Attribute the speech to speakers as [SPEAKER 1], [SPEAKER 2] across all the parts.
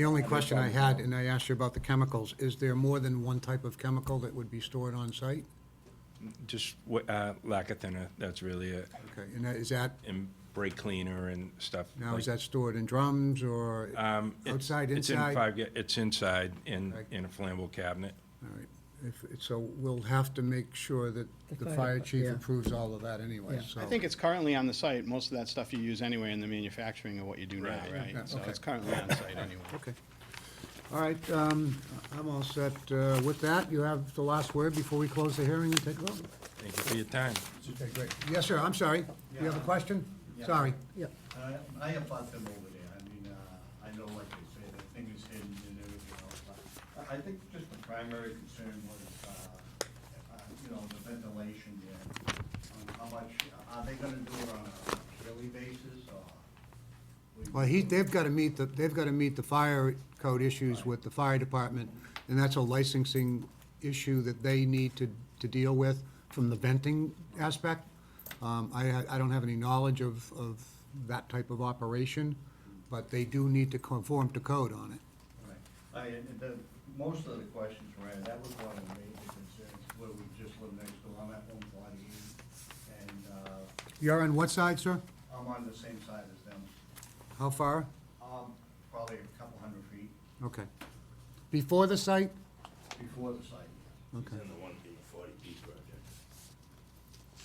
[SPEAKER 1] The only question I had, and I asked you about the chemicals, is there more than one type of chemical that would be stored on site?
[SPEAKER 2] Just wh- uh, lacquer thinner, that's really it,
[SPEAKER 1] Okay, and that- is that,
[SPEAKER 2] and brake cleaner and stuff.
[SPEAKER 1] now is
[SPEAKER 2] like-
[SPEAKER 1] that stored in drums or
[SPEAKER 2] Um, it-
[SPEAKER 1] outside,
[SPEAKER 2] it's in
[SPEAKER 1] inside?
[SPEAKER 2] five ga- It's inside, in,
[SPEAKER 1] Okay.
[SPEAKER 2] in a flammable cabinet.
[SPEAKER 1] All right, if, so we'll have to make sure that
[SPEAKER 3] The
[SPEAKER 1] the
[SPEAKER 3] fire
[SPEAKER 1] fire
[SPEAKER 3] dep-
[SPEAKER 1] chief
[SPEAKER 3] yeah.
[SPEAKER 1] approves all of that anyway,
[SPEAKER 3] Yeah.
[SPEAKER 1] so.
[SPEAKER 4] I think it's currently on the site. Most of that stuff you use anyway in the manufacturing of what you do now,
[SPEAKER 2] Right.
[SPEAKER 4] right?
[SPEAKER 1] Yeah,
[SPEAKER 4] So
[SPEAKER 1] okay.
[SPEAKER 4] it's currently on site anyway.
[SPEAKER 1] Okay. All right, um, I'm all set. Uh, With that, you have the last word before we close the hearing and take a vote.
[SPEAKER 2] Thank you for your time.
[SPEAKER 1] Okay, great. Yes, sir, I'm sorry. You have a question?
[SPEAKER 5] Yeah.
[SPEAKER 1] Sorry.
[SPEAKER 3] Yeah,
[SPEAKER 5] I, Uh, I have bought them over there, I mean, uh, I know like they say, the thing is hidden and everything else, but I, I think just the primary concern was, uh, uh, you know, the ventilation there. Um, How much, are they gonna do it on a yearly basis, or?
[SPEAKER 1] Well, he, they've got to meet, the they've got to meet the fire code issues with the fire department, and that's a licensing issue that they need to, to deal with from the venting aspect. Um, I, ha- I don't have any knowledge of, of that type of operation, but they do need to conform to code on it.
[SPEAKER 5] Right. I, and the, most of the questions were, asked. that was one of the major concerns, where we just live next door, I'm at one forty-eight, and, uh,
[SPEAKER 1] You're on what side, sir?
[SPEAKER 5] I'm on the same side as them.
[SPEAKER 1] How far?
[SPEAKER 5] Um, probably a couple hundred feet
[SPEAKER 1] Okay. Before the site?
[SPEAKER 5] before the site.
[SPEAKER 1] Okay.
[SPEAKER 6] the one being forty B project.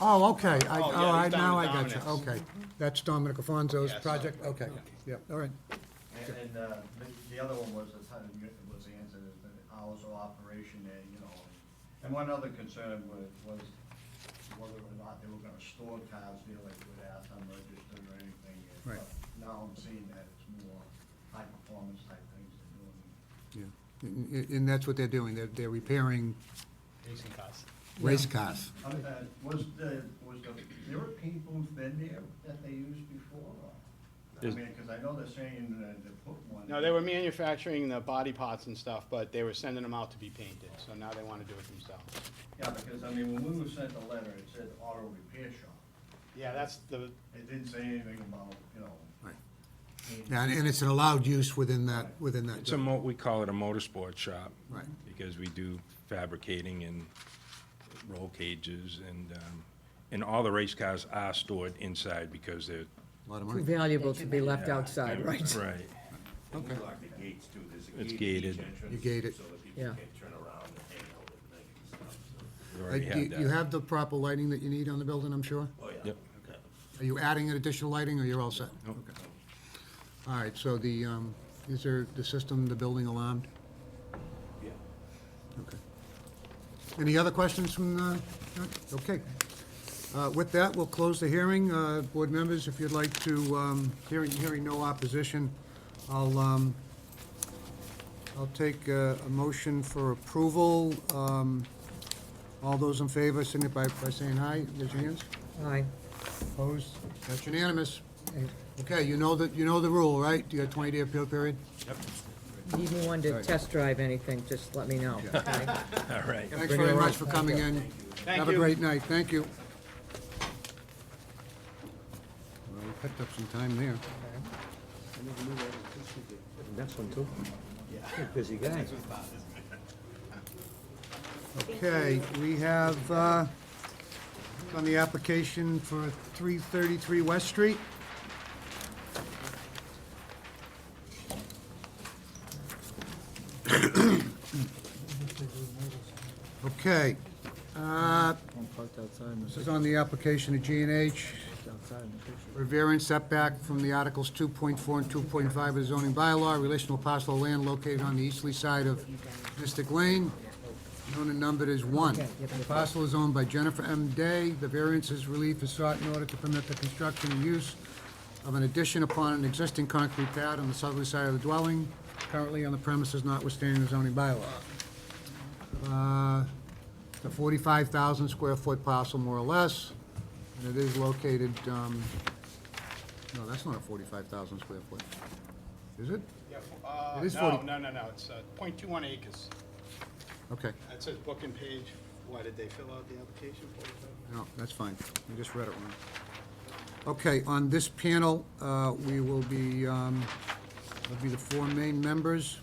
[SPEAKER 1] Oh, okay, I,
[SPEAKER 4] Oh, yeah,
[SPEAKER 1] all
[SPEAKER 4] he's
[SPEAKER 1] right,
[SPEAKER 4] down
[SPEAKER 1] now I
[SPEAKER 4] in
[SPEAKER 1] got you,
[SPEAKER 4] Dominick's.
[SPEAKER 1] okay. That's Dominic Alfonso's
[SPEAKER 5] Yeah, so-
[SPEAKER 1] project, okay, yeah, all right.
[SPEAKER 5] And, and, uh, the, the other one was the time, it was answered, is the hours of operation there, you know. And one other concern was, was whether or not they were gonna store cars there, like you would ask, unregistered or anything.
[SPEAKER 1] Right.
[SPEAKER 5] and, but Now I'm seeing that it's more high-performance type things they're doing.
[SPEAKER 1] Yeah, and, and- and that's what they're doing, they're, they're repairing
[SPEAKER 4] Racing cars.
[SPEAKER 1] race cars.
[SPEAKER 5] Um, uh, was the, was the European booth been there that they used before, or? I
[SPEAKER 2] There's-
[SPEAKER 5] mean, cause I know they're saying that they put one.
[SPEAKER 4] No, they were manufacturing the body parts and stuff, but they were sending them out to be painted, so now they wanna do it themselves.
[SPEAKER 5] Yeah, because, I mean, when we were sent the letter, it said auto repair shop.
[SPEAKER 4] Yeah, that's the,
[SPEAKER 5] It didn't say anything about, you know.
[SPEAKER 1] Right. And, and it's an allowed use within that, within that.
[SPEAKER 2] It's a mo, we call it a motorsport shop.
[SPEAKER 1] Right.
[SPEAKER 2] Because we do fabricating and roll cages and, um, and all the race cars are stored inside because they're.
[SPEAKER 1] Lot of
[SPEAKER 3] too
[SPEAKER 1] money.
[SPEAKER 3] valuable to be left outside, right?
[SPEAKER 2] Right.
[SPEAKER 6] And we lock the gates too, there's a gate at
[SPEAKER 2] It's
[SPEAKER 6] each
[SPEAKER 2] gated.
[SPEAKER 6] entrance.
[SPEAKER 1] You gate it.
[SPEAKER 6] So that people
[SPEAKER 3] Yeah.
[SPEAKER 6] can't turn around and hang out at night and stuff, so,
[SPEAKER 2] We
[SPEAKER 1] Uh,
[SPEAKER 2] already
[SPEAKER 1] do You you
[SPEAKER 2] that.
[SPEAKER 1] have the proper lighting that you need on the building, I'm sure?
[SPEAKER 6] oh, yeah.
[SPEAKER 2] Yep.
[SPEAKER 6] Yeah.
[SPEAKER 1] Are you adding an additional lighting, or you're all set? Okay. All right, so the, um, is there, the system, the building alarmed?
[SPEAKER 6] Yeah.
[SPEAKER 1] Okay. Any other questions from, uh, no? okay. Uh, With that, we'll close the hearing. Uh, Board members, if you'd like to, um, hearing, hearing no opposition, I'll, um, I'll take uh, a motion for approval. Um, All those in favor, signify by saying aye. Raise your hands.
[SPEAKER 3] Aye.
[SPEAKER 1] Opposed? That's unanimous. Okay, you know the, you know the rule, right? You got 20-day appeal period?
[SPEAKER 3] Need anyone to test drive anything, just let me know. okay?
[SPEAKER 2] All right.
[SPEAKER 1] Thanks
[SPEAKER 3] Bring it
[SPEAKER 1] very
[SPEAKER 3] around.
[SPEAKER 1] much for coming in.
[SPEAKER 4] Thank
[SPEAKER 1] Have a
[SPEAKER 4] you.
[SPEAKER 1] great night, thank you. Well, we picked up some time there.
[SPEAKER 7] Next one too. Yeah. Busy guy.
[SPEAKER 1] Okay, we have, uh, on the application for 333 West Street. Okay, uh,
[SPEAKER 7] One parked outside in
[SPEAKER 1] this is on the application of G and H
[SPEAKER 7] the, outside in the picture.
[SPEAKER 1] for variance setback from the Articles 2.4 and 2.5 of the zoning bylaw, relational parcel of land located on the easterly side of Mystic Lane, known and numbered as 1. The parcel is owned by Jennifer M. Day. The variance is relief is sought in order to permit the construction and use of an addition upon an existing concrete pad on the southerly side of the dwelling, currently on the premises notwithstanding the zoning bylaw. Uh, It's a 45,000 square foot parcel, more or less, and it is located, um, no, that's not a forty-five thousand square foot. Is it?
[SPEAKER 4] yeah, f- uh,
[SPEAKER 1] It is
[SPEAKER 4] no,
[SPEAKER 1] 40
[SPEAKER 4] no, no, no, it's, uh, point two one acres.
[SPEAKER 1] Okay,
[SPEAKER 4] That says book and page. Why did they fill out the application for it?
[SPEAKER 1] no, that's fine. I just read it wrong. Okay, on this panel, uh, we will be, um, That'll be the four main members.